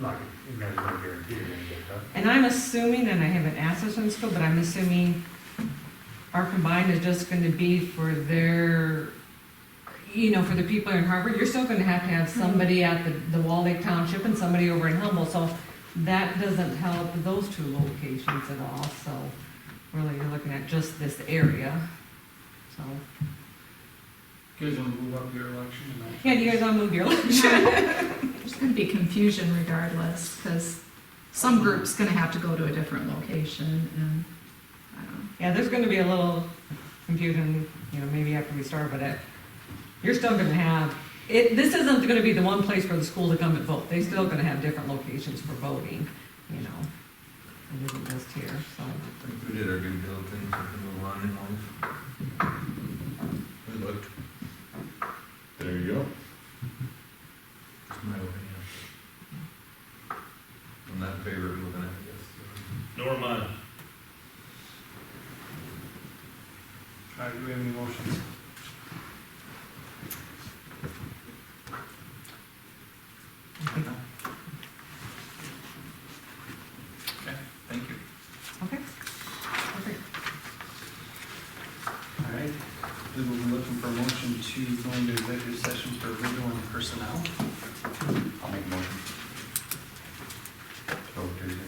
not, you guys don't guarantee you're gonna get that. And I'm assuming, and I haven't asked this in school, but I'm assuming our combined is just gonna be for their, you know, for the people in Harvard, you're still gonna have to have somebody at the, the Wall Lake Township and somebody over in Humboldt, so that doesn't help those two locations at all, so really you're looking at just this area, so. Guys wanna move up your election tonight? Yeah, do you guys wanna move your election? There's gonna be confusion regardless, because some group's gonna have to go to a different location, and, I don't know. Yeah, there's gonna be a little confusion, you know, maybe after we start, but it, you're still gonna have, it, this isn't gonna be the one place for the school to come and vote. They're still gonna have different locations for voting, you know. It isn't just here, so. I think we did our due diligence with the Milan and all. We looked, There you go. it's my opinion. I'm not in favor of moving it, I guess. Nor am I. All right, do we have any motions? I think- Thank you. Okay. Perfect. All right, we will be looking for a motion to go into executive session for legal and personnel. I'll make a motion. Oh, do you?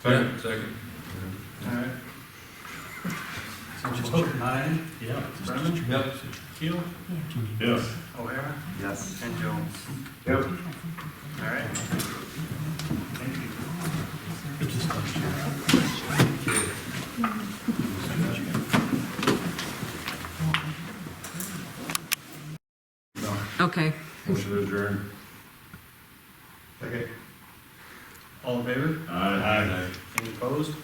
Second. Second. All right. So just vote aye, Yeah. Brennan, Yep. Keel, Yeah. Yes. O'Hara, Yes. and Jones. Yep. All right. Thank you. Okay. Motion to adjourn. Okay. All in favor? Aye. Any opposed?